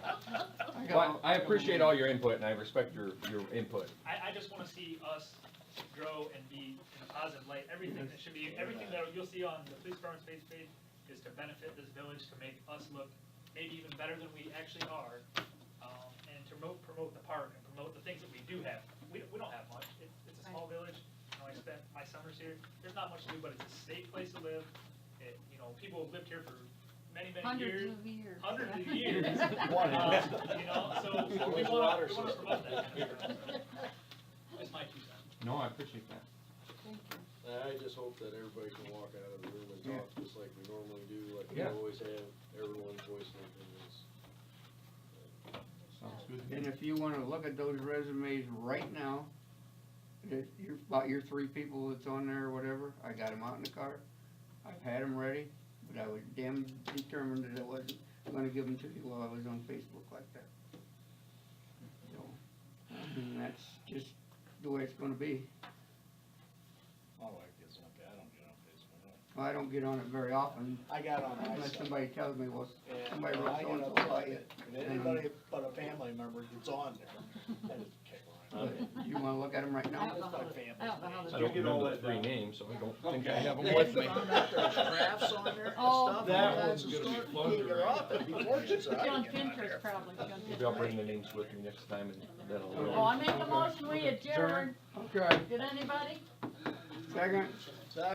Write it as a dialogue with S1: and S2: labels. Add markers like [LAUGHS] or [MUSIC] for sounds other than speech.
S1: got
S2: Well,
S1: a-
S2: I I
S1: got a
S2: appreciate
S1: little-
S2: all your input and I respect your, your input.
S3: I, I just wanna see us grow and be in a positive light, everything that should be, everything that you'll see on the police department's page page is to benefit this village, to make us look maybe even better than we actually are, um, and to promote, promote the park and promote the things that we do have. We, we don't have much, it's, it's a small village, you know, I spent my summers here, there's not much to do, but it's a safe place to live. It, you know, people have lived here for many, many years
S1: Hundreds of years.
S3: hundreds of
S1: yeah. [LAUGHS]
S3: years.
S4: Water.
S3: Uh, You know, so we want to, we
S4: Water system.
S3: want to promote that kind of stuff. so. That's my two cents.
S2: No, I appreciate that.
S1: Thank you.
S4: I just hope that everybody can walk out of the room and talk just like we normally do, like we
S2: Yeah.
S4: always have, everyone's voice and
S2: Sounds good.
S5: And if you wanna look at those resumes right now, that your, about your three people that's on there or whatever, I got them out in the car. I've had them ready, but I was damn determined that I wasn't gonna give them to you while I was on Facebook like that. So, I mean, that's just the way it's gonna be.
S6: I like this one, I don't get on Facebook.
S5: I don't get on it very often
S6: I got on
S5: unless
S6: iSub.
S5: somebody tells me, well,
S6: and
S5: somebody wrote
S6: I get
S5: so-and-so
S6: upset
S5: about you.
S6: that Anybody but a family member that's on there, that
S5: But
S6: is kicker.
S5: You wanna look at them right
S1: I
S5: now?
S1: don't
S6: [LAUGHS]
S1: know
S6: It's
S1: how
S6: like
S1: to-
S6: family
S1: I don't know how
S6: names.
S1: to
S2: I
S1: do
S2: don't
S1: it.
S2: remember the three names, so I don't think I have them
S6: Okay.
S2: with me.
S6: Found
S4: everyone's.
S6: on there
S1: Oh. That
S2: one's gonna be fun.
S1: John Pinter's probably, John
S2: Maybe I'll bring
S1: Pinter's.
S2: the names with me next time and then
S1: Oh,
S2: I'll.
S1: I make a motion, we adjourn,
S5: Okay,
S1: did anybody?
S5: second?